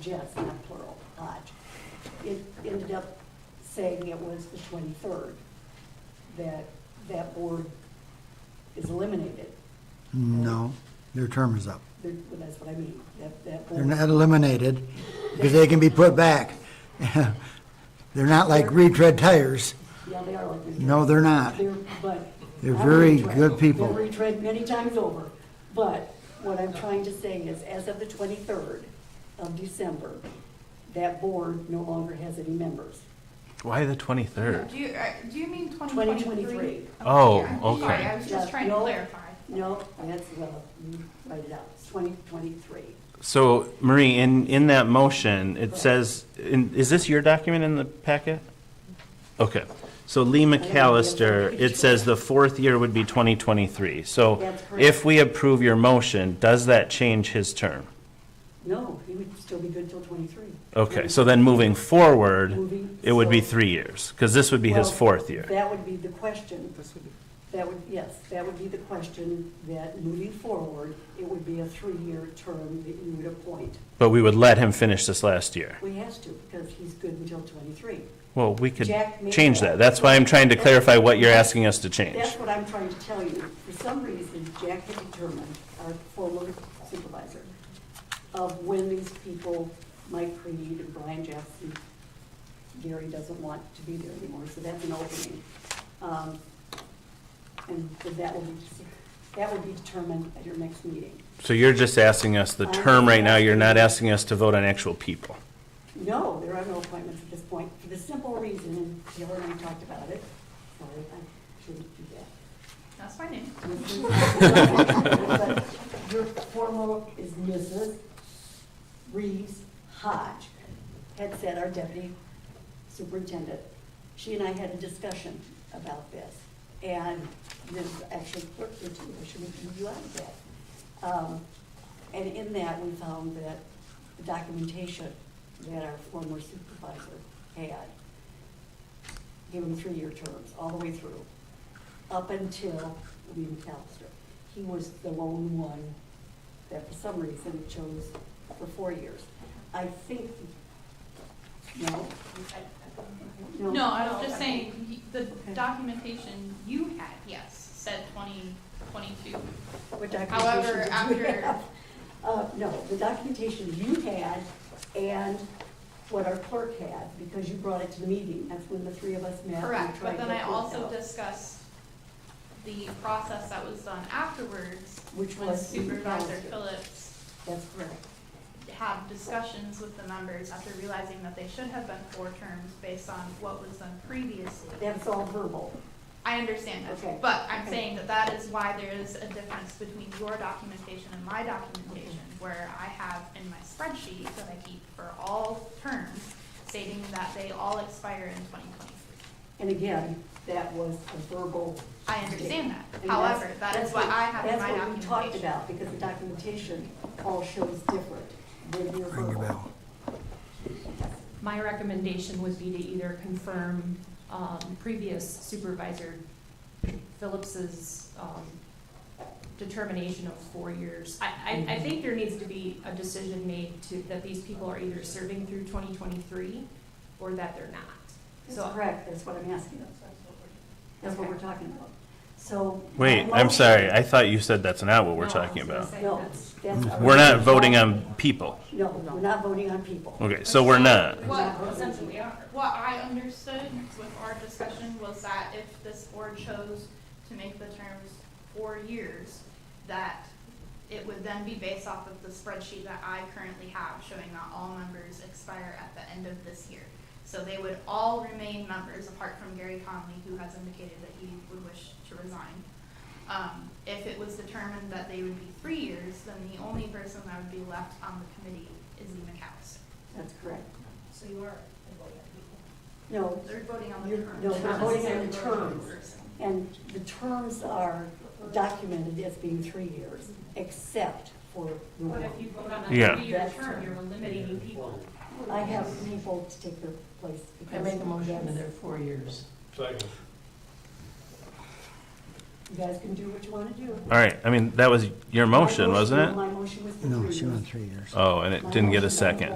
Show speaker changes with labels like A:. A: Jess, not plural, Hodge, it ended up saying it was the 23rd that that board is eliminated.
B: No, their term is up.
A: There- well, That's what I mean, that, that
B: They're
A: board.
B: not eliminated because they can be put back. They're not like retread tires.
A: Yeah, they are like. we-
B: No, they're not.
A: They're, but.
B: They're
A: I'm
B: very
A: retread.
B: good people.
A: They're retread many times over. But what I'm trying to say is, as of the twenty-third of December, that board no longer has any members.
C: Why the 23rd?
D: Do you, uh, do you mean
A: 2023.
D: 2023?
C: Oh,
D: yeah, I'm Sorry,
C: okay.
D: I was just
A: Yeah,
D: trying to
A: Uh, no,
D: clarify.
A: No, that's, well, you uh, write it out, it's twenty twenty-three.
C: So, Marie, in, in that motion, it says, in- is this your document in the packet? Okay. So Lee McAllister, it says the fourth year would be 2023. So
A: That's correct.
C: if we approve your motion, does that change his term?
A: No, he would still be good till twenty-three.
C: Okay, so then moving forward,
A: Moving
C: it would be
A: forward.
C: three years, because this would be his
A: Well,
C: fourth year.
A: That would be the question. That would, yes, that would be the question, that moving forward, it would be a three-year term that you would appoint.
C: But we would let him finish this last year.
A: We has to, because he's good until twenty-three.
C: Well, we could
A: Jack made
C: change
A: that.
C: that. That's why I'm trying to clarify what you're asking us to change.
A: That's what I'm trying to tell you. For some reason, Jack had determined, our former supervisor, of when these people, Mike Creed and Brian Jackson, Gary doesn't want to be there anymore, so that's an opening. Um, And that will be, that will be determined at your next meeting.
C: So you're just asking us the term right now, you're not asking us to vote on actual people.
A: No, there are no appointments at this point, for the simple reason, and Taylor and I talked about it. Sorry, I shouldn't do that.
D: That's my name.
A: Your formal is Mrs. Reeves Hodge, had said our deputy superintendent. She and I had a discussion about this, and this actually clerk did too, I should have you out of that. Um, And in that, we found that the documentation that our former supervisor had gave him three-year terms, all the way through up until Lee McAllister. He was the lone one that for some reason chose for four years. I think, no?
D: No, I was just saying, he- the
A: Okay.
D: documentation you had, yes, said 2022.
A: What
D: However,
A: documentation did you
D: after-
A: have? Uh, no, the documentation you had and what our clerk had, because you brought it to the meeting, that's when the three of us met. and
D: Correct,
A: tried
D: but then
A: to
D: I
A: work
D: also
A: out,
D: discussed the process that was done afterwards
A: Which
D: when
A: was.
D: Supervisor
A: McAllister.
D: Phillips
A: That's correct.
D: have discussions with the members after realizing that they should have been four terms based on what was done previously.
A: That's all verbal.
D: I understand
A: Okay.
D: that, but I'm
A: Okay.
D: saying that that is why there is a difference between your documentation and my documentation, where I have in my spreadsheet that I keep for all terms stating that they all expire in twenty twenty-three.
A: And again, that was a verbal
D: I understand that,
A: And
D: however,
A: that's-
D: that
A: that's
D: is what I have in
A: That's
D: my
A: what we talked
D: documentation.
A: about, because the documentation all shows different than your
B: Ring a
A: verbal.
B: bell.
E: My recommendation would be to either confirm um, previous supervisor Phillips's um, determination of four years. I, I, I think there needs to be a decision made to, that these people are either serving through 2023 or that they're not.
A: That's
E: So
A: correct, that's what I'm asking. That's what we're talking about. So.
C: Wait, I'm sorry, I thought you said that's not what we're
E: No,
C: talking
E: I
C: about.
E: was gonna say
A: Uh, No,
E: that's-
A: that's our-
C: We're not voting on people.
A: No, we're not voting on people.
C: Okay, so we're not.
D: What essentially are, what I understood with our discussion was that if this board chose to make the terms four years, that it would then be based off of the spreadsheet that I currently have showing that all members expire at the end of this year. So they would all remain members apart from Gary Conley, who has indicated that he would wish to resign. Um, if it was determined that they would be three years, then the only person that would be left on the committee is Lee McAllister.
A: That's correct.
D: So you are voting on
A: No,
D: people. They're voting on the
A: You're-
D: terms.
A: no,
D: not
A: they're voting on the
D: necessarily voting
A: terms.
D: person.
A: and the terms are documented as being three years, except for. the
E: But
A: one.
E: if you vote on a
C: Yeah.
E: three-year term, you're eliminating people.
A: I have people to take their place.
F: I
A: because
F: make a motion that
A: that's-
F: they're four years.
G: Second.
A: You guys can do what you want to do.
C: All right, I mean, that was your motion,
A: My
C: wasn't it?
A: My motion was for three
B: No,
A: years.
B: she went three years.
C: Oh, and it didn't get a second.